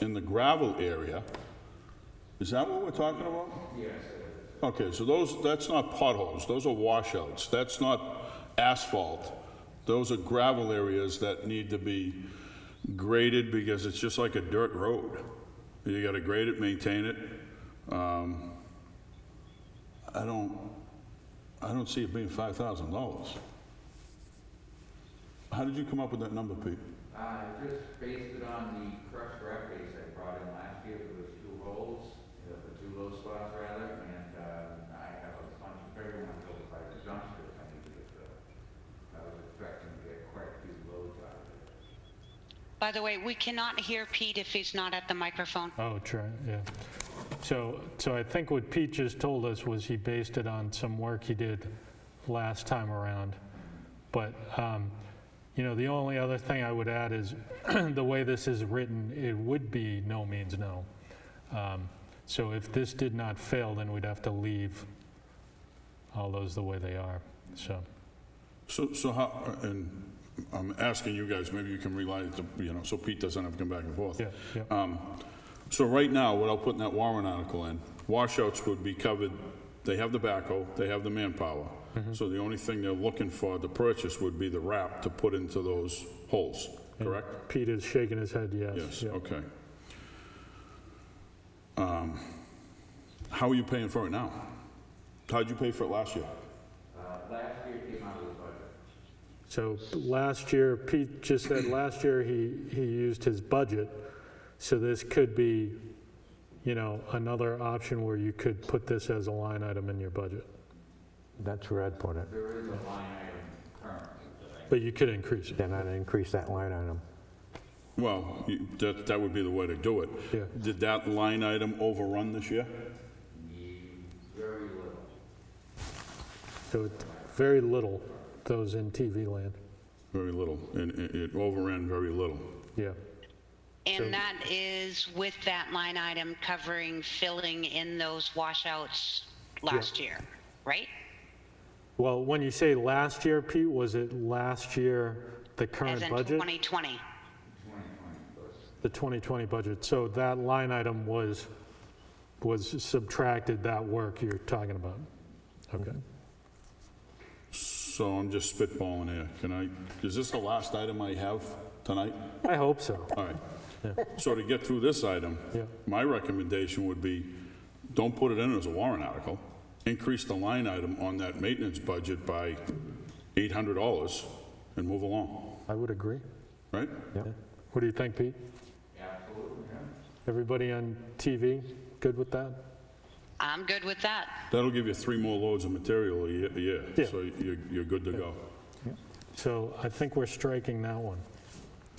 in the gravel area. Is that what we're talking about? Yes. Okay, so those, that's not potholes, those are washouts. That's not asphalt. Those are gravel areas that need to be graded because it's just like a dirt road. You gotta grade it, maintain it. Um, I don't, I don't see it being $5,000. How did you come up with that number, Pete? Uh, just based it on the crushed rock base I brought in last year, there was two holes, uh, the two low spots rather, and, uh, I have a bunch of bigger ones over by the dumpster, I need to get the, I was expecting to get quite a few loads out of it. By the way, we cannot hear Pete if he's not at the microphone. Oh, true, yeah. So, so I think what Pete just told us was he based it on some work he did last time around. But, um, you know, the only other thing I would add is, the way this is written, it would be no means no. Um, So if this did not fail, then we'd have to leave all those the way they are, so. So, so how, and I'm asking you guys, maybe you can rely, to- you know, so Pete doesn't have to come back and forth. Yeah, yeah. So right now, without putting that warrant article in, washouts would be covered, they have the backhoe, they have the manpower. Mm-hmm. So the only thing they're looking for to purchase would be the wrap to put into those holes, correct? Pete is shaking his head, yes. Yes, yeah. okay. Um, How are you paying for it now? How'd you pay for it last year? Uh, last year came out of the budget. So last year, Pete just said last year he, he used his budget. So this could be, you know, another option where you could put this as a line item in your budget. That's where I'd put it. There is a line item currently that I, But you could increase it. Then I'd increase that line item. Well, you- that, that would be the way to do it. Yeah. Did that line item overrun this year? need very little. So it's very little, those in TV land. Very little, and it it overran very little. Yeah. And that is with that line item covering filling in those washouts last year, right? Well, when you say last year, Pete, was it last year, the As current in budget? 2020. The 2020 budget. So that line item was, was subtracted that work you're talking about. Okay. So I'm just spitballing here. Can I, is this the last item I have tonight? I hope so. All right. So to get through this item, Yeah. my recommendation would be, don't put it in as a warrant article. Increase the line item on that maintenance budget by $800 and move along, I would agree. right? What do you think, Pete? Everybody on TV, good with that? I'm good with that. That'll give you three more loads of material a ye- a year, Yeah. so you're, you're good to go. So I think we're striking that one.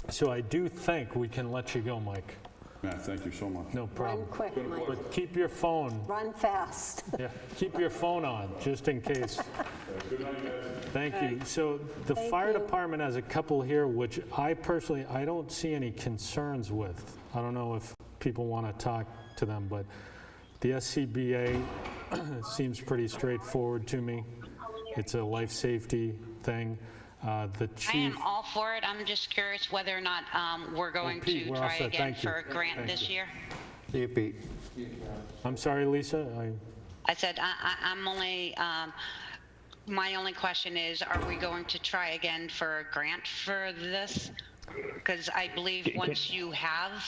So I do think we can let you go, Mike. Matt, thank you so much. No Run problem. quick, Mike. But keep your phone, Run fast. yeah, keep your phone on, just in case. Thank you. So the Thank fire you. department has a couple here, which I personally, I don't see any concerns with. I don't know if people want to talk to them, but the SCBA seems pretty straightforward to me. It's a life safety thing. Uh, The I chief, am all for it. I'm just curious whether or not um, we're going Pete, to we're all try set. again Thank you. for a grant this year. See you, Pete. I'm sorry, Lisa, I, I said, I, I, I'm only, um, my only question is, are we going to try again for a grant for this? Because I believe once you have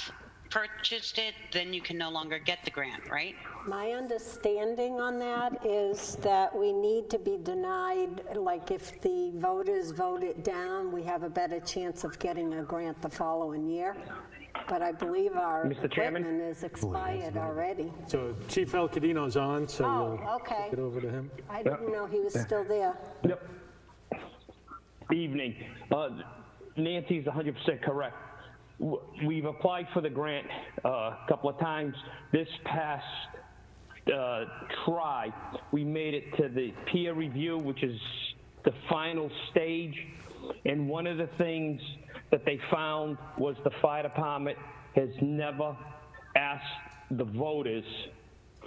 purchased it, then you can no longer get the grant, right? My understanding on that is that we need to be denied, like if the voters vote it down, we have a better chance of getting a grant the following year. But I believe our Mr. Chairman? equipment is expired already. so Chief El Cadino's on, so Oh, we'll okay. get over to him. I didn't know he was still there. Yep. Evening. Uh, Nancy's 100% correct. W- We've applied for the grant uh, a couple of times. This past uh, try, we made it to the peer review, which is the final stage. And one of the things that they found was the fire department has never asked the voters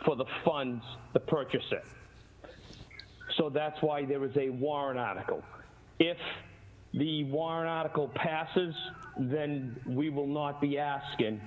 for the funds to purchase it. So that's why there is a warrant article. If the warrant article passes, then we will not be asking